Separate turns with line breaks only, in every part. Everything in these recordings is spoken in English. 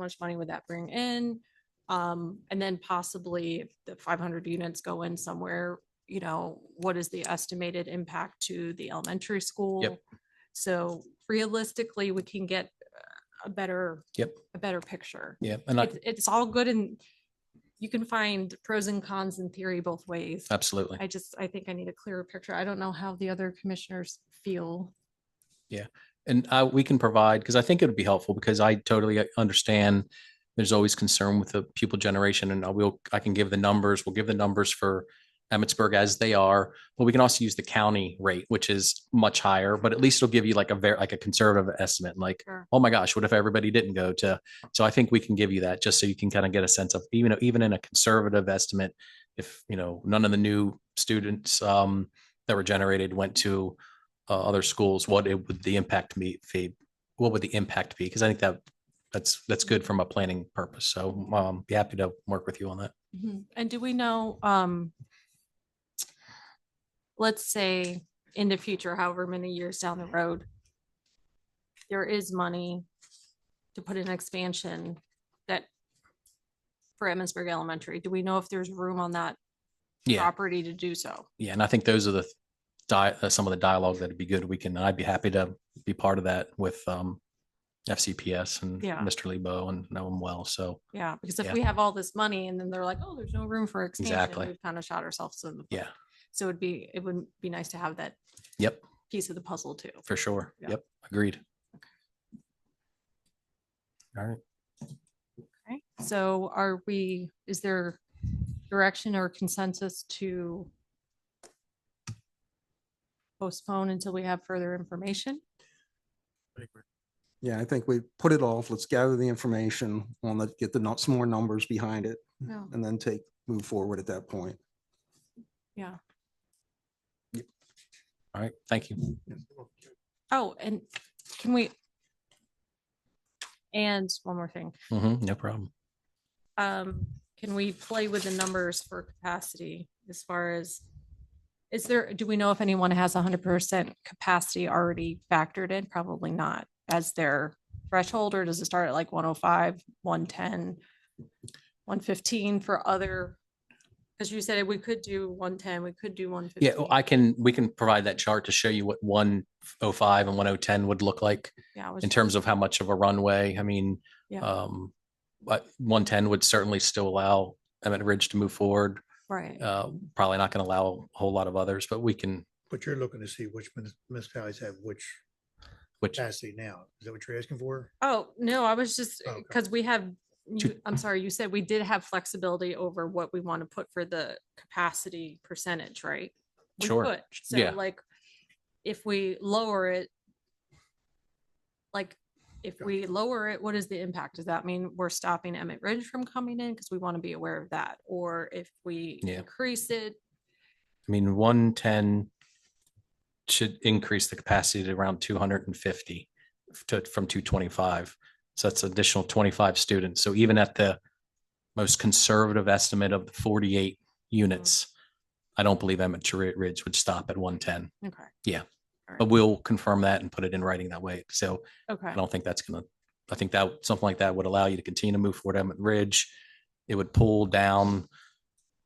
much money would that bring in? Um, and then possibly if the five hundred units go in somewhere, you know, what is the estimated impact to the elementary school? So realistically, we can get uh, a better.
Yep.
A better picture.
Yeah, and I,
It's- It's all good and you can find pros and cons in theory both ways.
absolutely.
I just, I think I need a clearer picture. I don't know how the other commissioners feel.
And I, we can provide, because I think it would be helpful, because I totally understand there's always concern with the pupil generation and I will, I can give the numbers, we'll give the numbers for Emmitsburg as they are, but we can also use the county rate, which is much higher, but at least it'll give you like a very, like a conservative estimate, like,
Sure.
oh my gosh, what if everybody didn't go to? So I think we can give you that, just so you can kind of get a sense of, even, even in a conservative estimate, if, you know, none of the new students, um, that were generated went to uh, other schools, what it would the impact be, be- what would the impact be? Because I think that that's that's good from a planning purpose. So um, be happy to work with you on that.
Mhm. And do we know, um, let's say in the future, however many years down the road, there is money to put in expansion that for Emmitsburg Elementary, do we know if there's room on that
Yeah,
property to do so?
yeah, and I think those are the di- uh, some of the dialogue that'd be good. We can. I'd be happy to be part of that with um, FCPS and
Yeah.
Mr. Lebo and know him well. So
Yeah, because if
Yeah.
we have all this money and then they're like, oh, there's no room for expansion,
Exactly.
we've kind of shot ourselves in the. foot.
yeah,
So it'd be, it would be nice to have that
yep,
piece of the puzzle too.
for sure.
Yeah.
Yep, agreed. All right.
Okay, so are we, is there direction or consensus to postpone until we have further information?
Yeah, I think we put it off. Let's gather the information on the, get the, nu- some more numbers behind it
No.
and then take, move forward at that point.
Yeah.
All right. Thank you.
Oh, and can we? And one more thing,
hmm no problem.
um, can we play with the numbers for capacity as far as? Is there, do we know if anyone has hundred percent capacity already factored in? Probably not as their threshold, or does it start at like 105, 110, 115 for other? Because you said we could do one ten, we could do one fifteen.
Yeah, well, I can, we can provide that chart to show you what one oh five and one oh ten would look like
Yeah, I was
in
just-
terms of how much of a runway. I mean,
Yeah.
um, but one ten would certainly still allow Emmett Ridge to move forward.
Right,
Uh, probably not going to allow a whole lot of others, but we can,
But you're looking to see which munis- municipalities have which
which,
capacity now. Is that what you're asking for?
oh, no, I was just,
Oh,
Okay.
because we have, you-
Mm-hmm.
I'm sorry, you said we did have flexibility over what we want to put for the capacity percentage, right? We
Sure.
could. So
Yeah.
like, if we lower it, like, if
Gotcha.
we lower it, what is the impact? Does that mean we're stopping Emmett Ridge from coming in? Because we want to be aware of that, or if we
Yeah.
increase it,
I mean, one ten should increase the capacity to around two hundred and fifty to, from two twenty-five. So that's additional twenty-five students. So even at the most conservative estimate of the forty-eight units, I don't believe Emmett Ri- Ridge would stop at one ten,
okay.
Yeah.
All
but
right.
we'll confirm that and put it in writing that way. So
Okay,
I don't think that's gonna, I think that, something like that would allow you to continue to move forward Emmett Ridge. It would pull down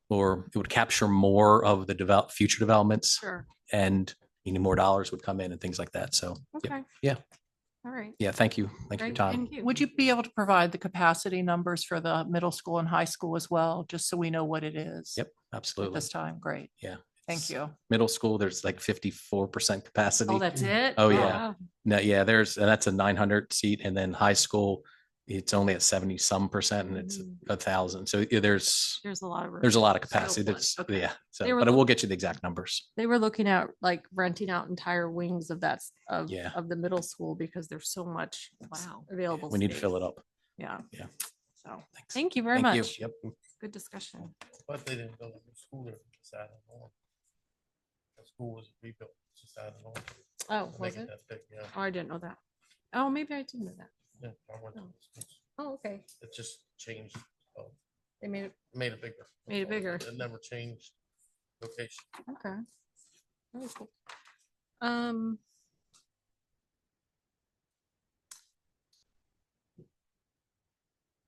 or it would capture more of the develop, future developments
sure,
and you know, more dollars would come in and things like that. So yeah.
okay.
Yeah.
All right.
yeah, thank you. Thank you for your
Great,
time.
thank you.
Would you be able to provide the capacity numbers for the middle school and high school as well, just so we know what it is?
Yep,
at
absolutely.
This time, great.
Yeah,
Thank
it's-
you.
Middle school, there's like fifty-four percent capacity.
Oh, that's it?
Oh, yeah.
wow.
No, yeah, there's, and that's a nine hundred seat. And then high school, it's only at seventy some percent and it's
Mm.
a thousand. So yeah, there's,
There's a lot of. room.
there's a lot
So
of capacity.
fun.
That's,
Okay.
yeah. So,
They were
but I
look-
will get you the exact numbers.
They were looking at like renting out entire wings of that, s- of,
Yeah.
of the middle school because there's so much
Wow.
available.
We need to fill it
space.
up.
Yeah.
Yeah.
So,
Thanks.
thank you very
Thank you.
much.
Yep.
Good discussion.
But they didn't build a new school there, it's just added on. The school was rebuilt, it's just added on.
Oh,
Make
was it?
that big, Yeah,
Oh, I didn't know that. Oh, maybe I did know that.
yeah, I went to
Oh.
the schools.
Oh, okay.
It just changed, uh,
They made it,
made it bigger.
Made it bigger.
It never changed location.
okay. Very cool. Um,